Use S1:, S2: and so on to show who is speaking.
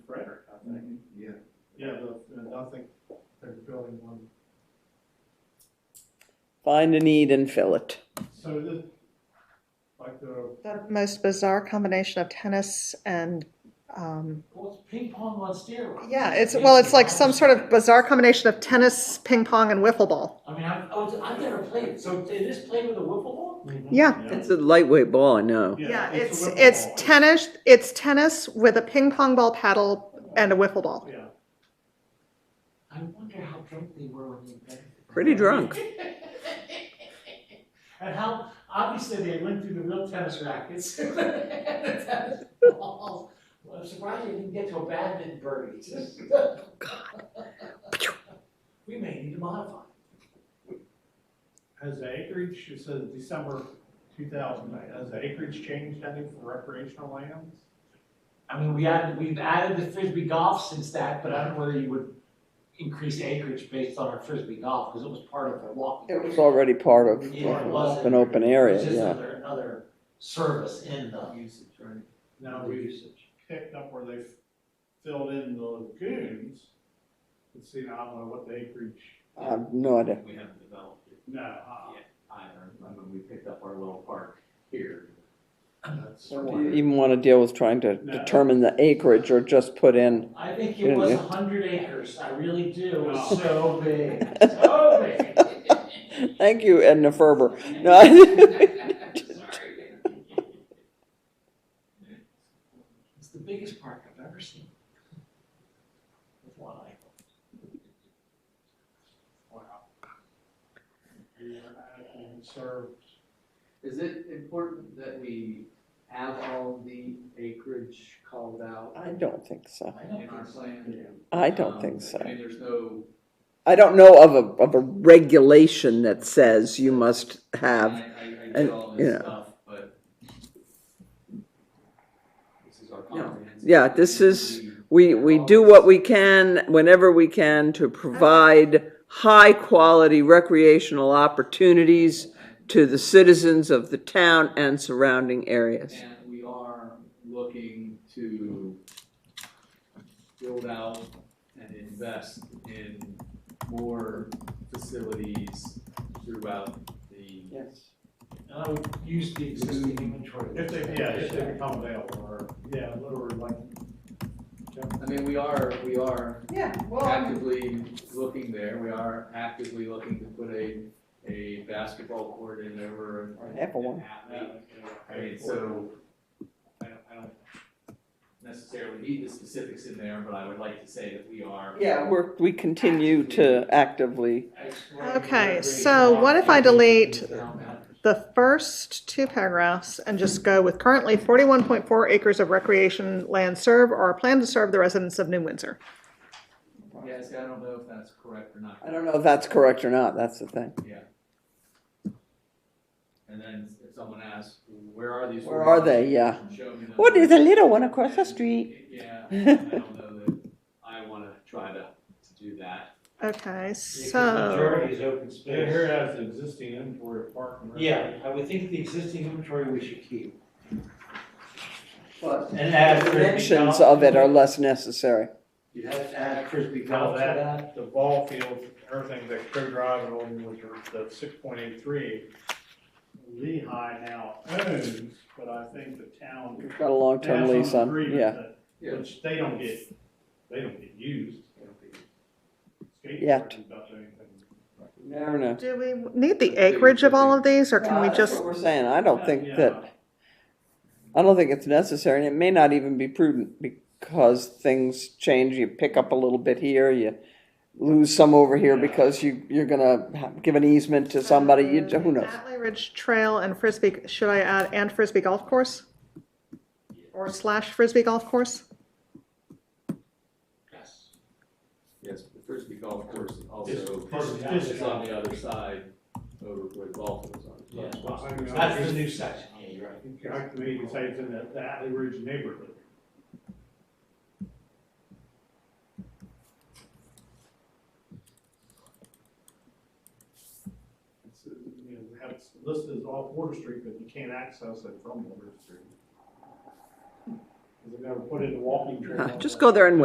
S1: don't uh, think they're building one.
S2: Find a need and fill it.
S1: So this, like the,
S3: The most bizarre combination of tennis and, um,
S4: Well, it's ping pong on steroids.
S3: yeah, it's, well, it's like some sort of bizarre combination of tennis, ping pong, and wiffle ball.
S4: I mean, I've, oh, it's- I've never played it, so it is played with a wiffle ball?
S2: Mm-hmm.
S3: Yeah.
S2: It's a lightweight ball, I know.
S3: Yeah, it's,
S1: a wiffle
S3: it's
S1: ball.
S3: tennis, it's tennis with a ping pong ball paddle and a wiffle ball.
S1: Yeah,
S4: I wonder how drunk they were when they invented it.
S2: Pretty drunk.
S4: And how, obviously, they went through the real tennis rackets. and the tennis balls. Well, I'm surprised they didn't get to a badminton birdie. We may need to modify.
S1: has the acreage, it says December two thousand nine, has the acreage changed any for recreational lands?
S4: I mean, we added, we've added the frisbee golf since that, but I don't know whether you would increase acreage based on our frisbee golf, because it was part of the walking.
S2: It was already part of
S4: Yeah, it was.
S2: an open area,
S4: It's just
S2: yeah.
S4: another, another service in the.
S5: Usage, right?
S1: Now we picked up where they filled in the lagoons, let's see, I don't know what the acreage,
S2: I have no idea.
S5: We haven't developed it
S1: no, uh,
S5: either, I mean, we picked up our little park here.
S1: that's.
S2: Do you even want to deal with trying to determine the acreage or just put in?
S4: I think it was a
S2: Yeah.
S4: hundred acres, I really do, it
S1: Oh.
S4: was so big, so big.
S2: Thank you, Edna Ferber. No, I-
S4: Sorry. It's the biggest park I've ever seen. With one eye.
S1: Wow. We are adequately conserved.
S5: Is it important that we have all the acreage called out
S2: I don't think so.
S4: I
S5: in
S4: don't
S5: our
S4: think so.
S5: plan?
S2: I don't
S5: Um,
S2: think so.
S5: I mean, there's no.
S2: I don't know of a, of a regulation that says you must have,
S5: I, I, I
S2: and,
S5: get all
S2: you
S5: this
S2: know.
S5: stuff, but. This is our
S2: No.
S5: comprehensive.
S2: Yeah, this
S5: plan.
S2: is- we, we do what we can, whenever we can, to provide high-quality recreational opportunities to the citizens of the town and surrounding areas.
S5: And we are looking to build out and invest in more facilities throughout the.
S2: Yes.
S4: And I would use the existing inventory.
S1: If they, yeah, if they become available, or, yeah, literally like.
S5: I mean, we are, we are
S3: Yeah,
S5: actively looking there, we are actively looking to put a, a basketball court in over.
S2: Or an apple one.
S5: I mean, so, I don't, I don't necessarily need the specifics in there, but I would like to say that we are.
S2: Yeah, we're, we continue to actively,
S3: Okay, so what if I delete the first two paragraphs and just go with currently forty-one point four acres of recreation land served or plan to serve the residents of New Windsor.
S5: Yeah, see, I don't know if that's correct or not.
S2: I don't know if that's correct or not, that's the thing.
S5: And then if someone asks, where are these?
S2: Where are they, yeah.
S5: Show me them.
S2: What is a little one across the street?
S5: Yeah, I don't know that I wanna try to, to do that.
S3: Okay, so,
S4: Majority is open space.
S1: Yeah, here it has the existing inventory of park and. rec.
S4: Yeah, I would think the existing inventory we should keep.
S2: But
S4: And add frisbee
S2: Mentions
S4: golf.
S2: of it are less necessary.
S4: You have to add frisbee
S1: Now
S4: golf to that.
S1: that, the ball field, everything that Crow Drive and all, which are the six point eight three, Lehigh now owns, but I think the town.
S2: We've got a long-term
S1: has some
S2: lease on,
S1: agreement
S2: yeah.
S1: that- Which they don't get, they don't get used. they don't get- skate
S2: Yet.
S1: parks don't do anything.
S2: Never know.
S3: do we need the acreage of all of these, or can we
S2: Well, That's
S3: just?
S2: what we're saying, I don't think
S1: Yeah.
S2: that, I don't think it's necessary, and it may not even be prudent, because things change, you pick up a little bit here, you lose some over here,
S1: Yeah.
S2: because you, you're gonna ha- give an easement to somebody, you, who knows?
S3: Atlee Ridge Trail and Frisbee, should I add and Frisbee Golf Course? Or slash Frisbee Golf Course?
S4: Yes.
S5: Yes, the frisbee golf course also
S1: It's- it's-
S5: is on the other side over where the golf was on.
S4: Yeah.
S1: I mean, I
S4: That's the
S1: think-
S4: new section, yeah, you're right.
S1: I can even say it's in the the Atlee Ridge neighborhood. It's, uh, you know, we have it listed as off Water Street, but you can't access it from Water Street. Because they've never put in a walking trail.
S2: Just go there and